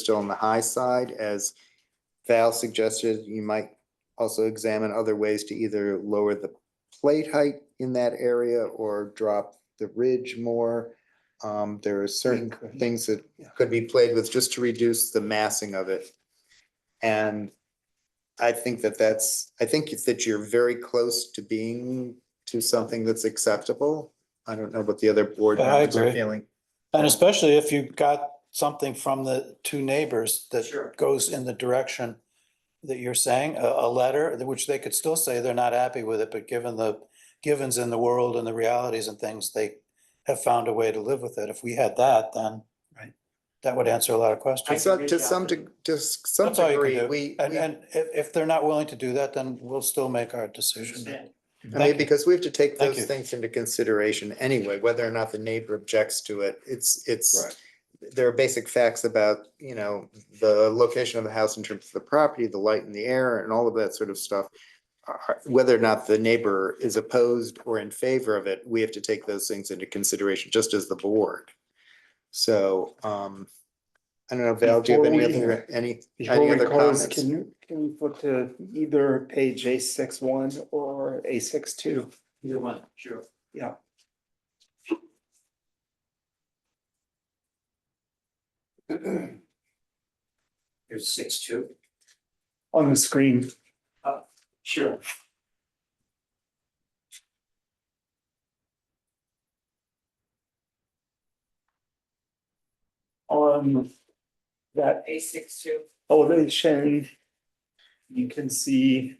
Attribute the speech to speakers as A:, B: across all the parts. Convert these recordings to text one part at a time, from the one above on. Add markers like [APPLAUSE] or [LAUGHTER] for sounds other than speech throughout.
A: still on the high side. As Val suggested, you might also examine other ways to either lower the plate height in that area or drop the ridge more. Um, there are certain
B: could.
A: things that
B: Yeah.
A: could be played with just to reduce the massing of it. And I think that that's, I think that you're very close to being to something that's acceptable. I don't know what the other board
B: I
A: members are
B: agree.
A: feeling.
B: And especially if you got something from the two neighbors
A: Sure.
B: that goes in the direction that you're saying, a, a letter, which they could still say they're not happy with it, but given the givens in the world and the realities and things, they have found a way to live with it. If we had that, then
C: Right.
B: that would answer a lot of questions.
A: So to some, deg- to s- some
B: That's all you can
A: degree,
B: do.
A: we,
B: And,
A: we-
B: and if, if they're not willing to do that, then we'll still make our decision.
A: I
B: Thank
A: mean,
B: you.
A: because we have to take
B: Thank
A: those
B: you.
A: things into consideration anyway, whether or not the neighbor objects to it. It's, it's there are basic facts about, you know, the location of the house in terms of the property, the light and the air and all of that sort of stuff. Are- Whether or not the neighbor is opposed or in favor of it, we have to take those things into consideration, just as the board. So, um, I don't know, Val, do you have any
D: Before we-
A: other, any,
D: Before
A: any
D: we
A: other
D: close,
A: comments?
D: can you, can we flip to either page A six one or A six two?
C: Either one, sure. [CLEARS THROAT] Here's six two. Uh,
D: On the screen,
C: Sure.
D: on that
C: A six two.
D: elevation, you can see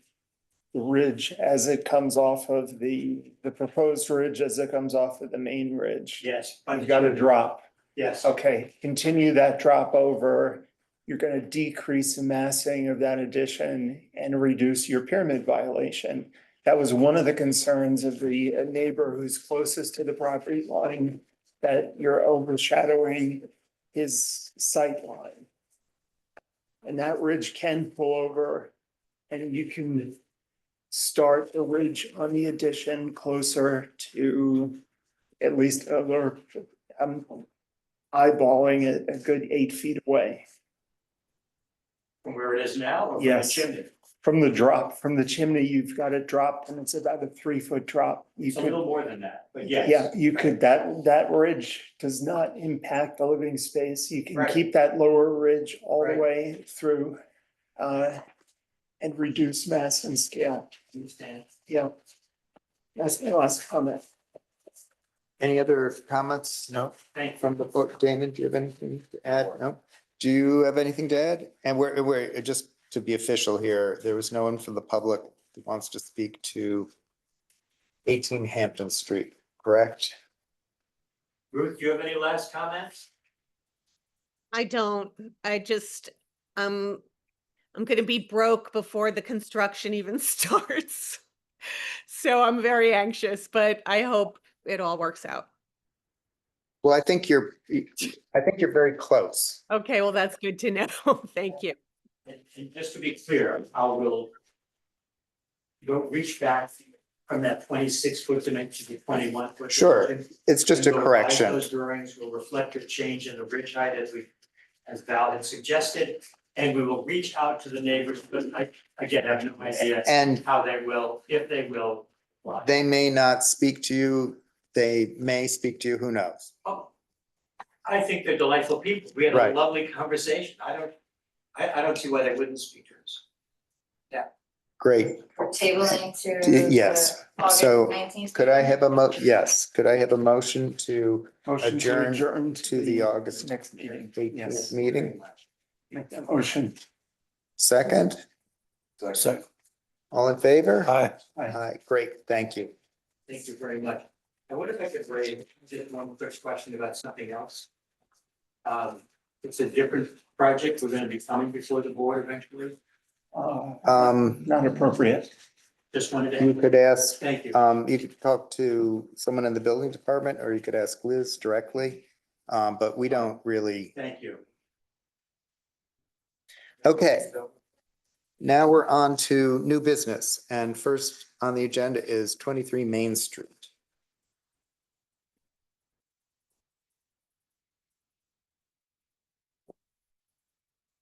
D: the ridge as it comes off of the, the proposed ridge as it comes off of the main ridge.
C: Yes.
D: You've got a drop.
C: Yes.
D: Okay, continue that drop over. You're gonna decrease the massing of that addition and reduce your pyramid violation. That was one of the concerns of the neighbor who's closest to the property line, that you're overshadowing his sight line. And that ridge can pull over and you can start the ridge on the addition closer to at least a lower, I'm eyeballing it a good eight feet away
C: From where it is now or from the
D: Yes.
C: chimney?
D: from the drop, from the chimney. You've got it dropped and it's about a three foot drop. You
C: It's a little
D: could,
C: more than that, but yes.
D: yeah, you could, that, that ridge does not impact the living space. You can
C: Right.
D: keep that lower ridge all the
C: Right.
D: way through uh, and reduce mass and scale.
C: Understand.
D: Yeah. That's my last comment.
A: Any other comments? No.
C: Thank you.
A: from the book. Damon, do you have anything to add? No? Do you have anything to add? And we're, we're, just to be official here, there was no one from the public that wants to speak to eighteen Hampton Street, correct?
C: Ruth, do you have any last comments?
E: I don't, I just, um, I'm gonna be broke before the construction even [LAUGHS] starts. So I'm very anxious, but I hope it all works out.
A: Well, I think you're, I think you're very close.
E: Okay, well, that's good to know. [LAUGHS] Thank you.
C: And, and just to be clear, I will go reach back from that twenty-six foot dimension to twenty-one foot.
A: Sure.
C: dimension.
A: It's just a
C: And we'll revise
A: correction.
C: Those drawings will reflect a change in the ridge height as we, as Val had suggested, and we will reach out to the neighbors, but I, again, I have no idea
A: And
C: how they will, if they will. apply.
A: they may not speak to you. They may speak to you. Who knows?
C: Oh, I think they're delightful people. We had a
A: Right.
C: lovely conversation. I don't, I, I don't see why they wouldn't speak to us.
A: Great.
F: We're tabling to.
A: Y- yes.
F: the August
A: So,
F: 19th
A: Could I have a mo, yes, could I have a motion to
D: Motion
A: Adjourn
D: to adjourn
A: to the August
D: Next meeting.
A: eighteenth
D: Yes.
A: meeting?
D: Make that motion.
A: Second?
B: So,
A: All in favor?
B: hi.
A: Aye, great, thank you.
C: Thank you very much. I wonder if I could raise just one quick question about something else. Um, it's a different project. We're gonna be coming before the board eventually.
D: Uh,
A: Um,
D: Not appropriate.
C: Just wanted
A: you
C: to,
A: could ask,
C: thank you.
A: um, you could talk to someone in the building department, or you could ask Liz directly. Um, but we don't really,
C: Thank you.
A: Okay. now we're on to new business, and first on the agenda is twenty-three Main Street.